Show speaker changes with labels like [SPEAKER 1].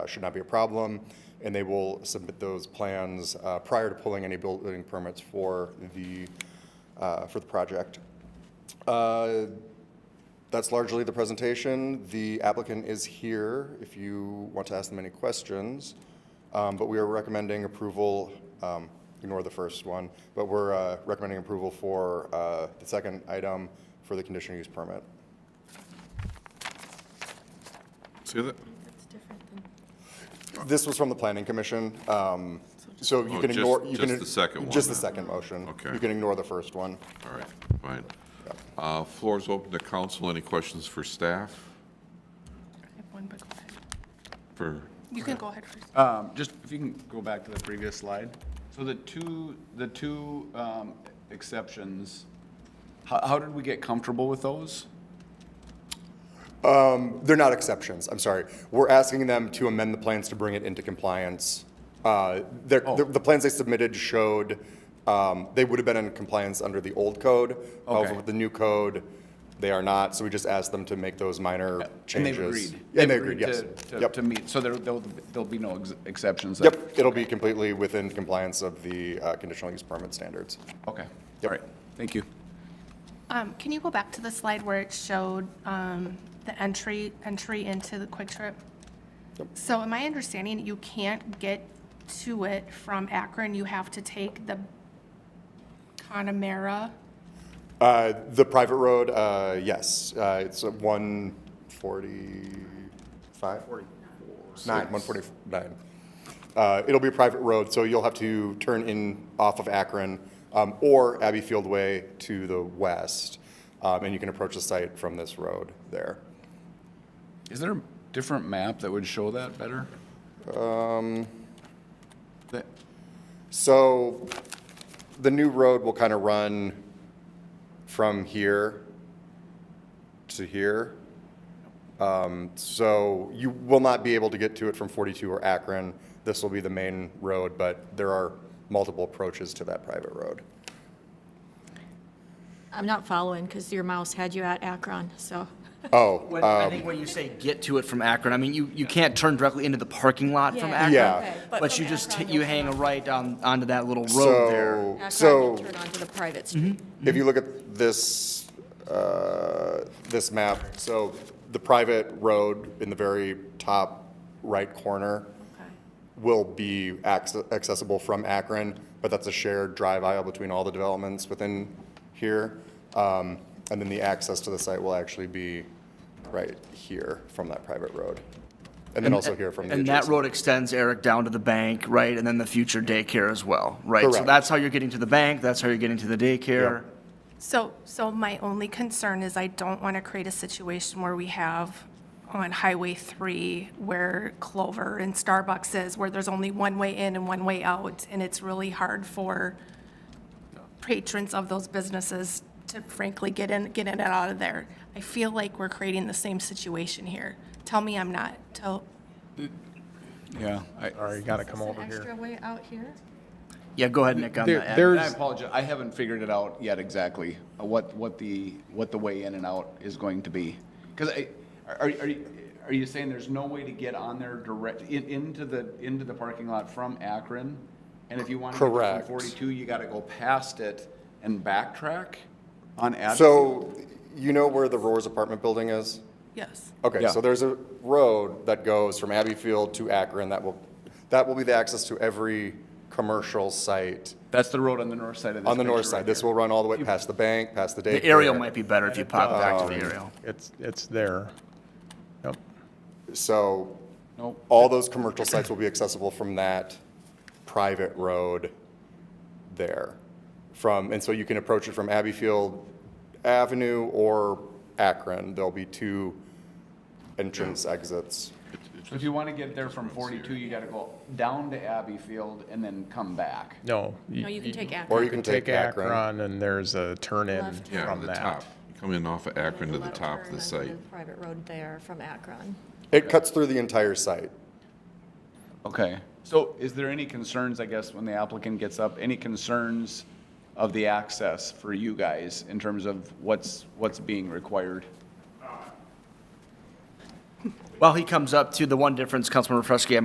[SPEAKER 1] uh, should not be a problem, and they will submit those plans uh, prior to pulling any building permits for the, uh, for the project. Uh, That's largely the presentation. The applicant is here if you want to ask them any questions, Um, but we are recommending approval, um, ignore the first one, but we're uh, recommending approval for uh, the second item for the conditional use permit.
[SPEAKER 2] See that?
[SPEAKER 3] That's different than,
[SPEAKER 1] This was from the planning commission, um, so you
[SPEAKER 2] Oh,
[SPEAKER 1] can
[SPEAKER 2] just-
[SPEAKER 1] ignore. you can-
[SPEAKER 2] just the second one
[SPEAKER 1] Just the
[SPEAKER 2] then.
[SPEAKER 1] second motion.
[SPEAKER 2] Okay.
[SPEAKER 1] You can ignore the first one.
[SPEAKER 2] All right, fine. Uh, Floor is open to council. Any questions for staff?
[SPEAKER 3] I have one, but go ahead.
[SPEAKER 2] For,
[SPEAKER 3] You can go ahead first.
[SPEAKER 4] Um, Just if you can go back to the previous slide. So the two, the two um, exceptions, how, how did we get comfortable with those?
[SPEAKER 1] They're not exceptions, I'm sorry. We're asking them to amend the plans to bring it into compliance. Uh, they're-
[SPEAKER 2] Oh.
[SPEAKER 1] The the plans they submitted showed, um, they would have been in compliance under the old code. However,
[SPEAKER 4] Okay.
[SPEAKER 1] with the new code, they are not, so we just asked them to make those minor changes.
[SPEAKER 4] And they've agreed?
[SPEAKER 1] Yeah, they agreed, yes.
[SPEAKER 4] to- to-
[SPEAKER 1] Yep.
[SPEAKER 4] To meet, so there, there'll, there'll be no ex- exceptions? then?
[SPEAKER 1] Yep, it'll be completely within compliance of the uh, conditional use permit standards.
[SPEAKER 4] Okay, all
[SPEAKER 1] Yep.
[SPEAKER 4] right, thank you.
[SPEAKER 3] Um, can you go back to the slide where it showed, um, the entry, entry into the Quick Trip? So am I understanding that you can't get to it from Akron? You have to take the Connemara?
[SPEAKER 1] Uh, The private road, uh, yes, uh, it's at 145? Nine, 149. Uh, It'll be a private road, so you'll have to turn in off of Akron um, or Abbey Field Way to the west, um, and you can approach the site from this road there.
[SPEAKER 4] Is there a different map that would show that better?
[SPEAKER 1] Um.
[SPEAKER 4] That-
[SPEAKER 1] So the new road will kind of run from here to here. Um, So you will not be able to get to it from 42 or Akron. This will be the main road, but there are multiple approaches to that private road.
[SPEAKER 5] I'm not following because your mouse had you at Akron, so.
[SPEAKER 1] Oh,
[SPEAKER 6] When,
[SPEAKER 1] uh,
[SPEAKER 6] I think when you say get to it from Akron, I mean you, you can't turn directly into the parking lot from
[SPEAKER 5] Yeah.
[SPEAKER 6] Akron.
[SPEAKER 1] Yeah.
[SPEAKER 5] Okay, but
[SPEAKER 6] But
[SPEAKER 5] from
[SPEAKER 6] you just
[SPEAKER 5] Akron,
[SPEAKER 6] t- you
[SPEAKER 5] you'll
[SPEAKER 6] hang a
[SPEAKER 5] turn
[SPEAKER 6] right on onto that little road
[SPEAKER 1] so,
[SPEAKER 6] there.
[SPEAKER 1] so.
[SPEAKER 5] Akron, you turn onto the private street.
[SPEAKER 2] Mm-hmm.
[SPEAKER 1] If you look at this, uh, this map, so the private road in the very top right corner will be acce- accessible from Akron, but that's a shared drive aisle between all the developments within here. Um, And then the access to the site will actually be right here from that private road. And then also here from the
[SPEAKER 6] And that
[SPEAKER 1] adjacent.
[SPEAKER 6] road extends Eric down to the bank, right, and then the future daycare as well, right? So
[SPEAKER 1] Correct.
[SPEAKER 6] that's how you're getting to the bank. That's how you're getting to the daycare.
[SPEAKER 3] So, so my only concern is I don't want to create a situation where we have on Highway 3 where Clover and Starbucks is, where there's only one way in and one way out, and it's really hard for patrons of those businesses to frankly get in, get in and out of there. I feel like we're creating the same situation here. Tell me I'm not. Tell,
[SPEAKER 4] Yeah, I,
[SPEAKER 7] All right, you gotta come over here.
[SPEAKER 5] Extra way out here?
[SPEAKER 6] Yeah, go ahead, Nick, on
[SPEAKER 7] There-
[SPEAKER 6] that.
[SPEAKER 4] And
[SPEAKER 7] there's-
[SPEAKER 4] I apologize, I haven't figured it out yet exactly, uh, what, what the, what the way in and out is going to be. Because I, are, are you, are you saying there's no way to get on there direct, in, into the, into the parking lot from Akron? And if you want to get to
[SPEAKER 1] Correct.
[SPEAKER 4] 142, you got to go past it and backtrack on Adams?
[SPEAKER 1] So you know where the Roars apartment building is?
[SPEAKER 3] yes.
[SPEAKER 1] Okay,
[SPEAKER 4] Yeah.
[SPEAKER 1] so there's a road that goes from Abbey Field to Akron that will, that will be the access to every commercial site
[SPEAKER 4] That's the road on the north side of this
[SPEAKER 1] on the north
[SPEAKER 4] picture right
[SPEAKER 1] side. This
[SPEAKER 4] here.
[SPEAKER 1] will run all the way past the bank, past the daycare.
[SPEAKER 6] The aerial might be better if you pop back to
[SPEAKER 1] Um,
[SPEAKER 6] the aerial.
[SPEAKER 7] It's, it's there. Yep.
[SPEAKER 1] So
[SPEAKER 4] Nope.
[SPEAKER 1] all those commercial sites will be accessible from that private road there. From, and so you can approach it from Abbey Field Avenue or Akron. There'll be two entrance exits.
[SPEAKER 4] So If you want to get there from 42, you got to go down to Abbey Field and then come back.
[SPEAKER 7] No.
[SPEAKER 5] No, you can take
[SPEAKER 1] Or
[SPEAKER 5] Akron.
[SPEAKER 1] you can take
[SPEAKER 7] Take
[SPEAKER 1] Akron.
[SPEAKER 7] Akron and there's a turn in
[SPEAKER 5] Left.
[SPEAKER 2] yeah,
[SPEAKER 7] from
[SPEAKER 2] the top.
[SPEAKER 7] that.
[SPEAKER 2] You Come in off of Akron to the
[SPEAKER 5] Left
[SPEAKER 2] top of
[SPEAKER 5] turn
[SPEAKER 2] the
[SPEAKER 5] onto
[SPEAKER 2] site.
[SPEAKER 5] Private road there from Akron.
[SPEAKER 1] It cuts through the entire site.
[SPEAKER 4] Okay. So is there any concerns, I guess, when the applicant gets up, any concerns of the access for you guys in terms of what's, what's being required?
[SPEAKER 6] While he comes up to the one difference, Councilmember Fresky,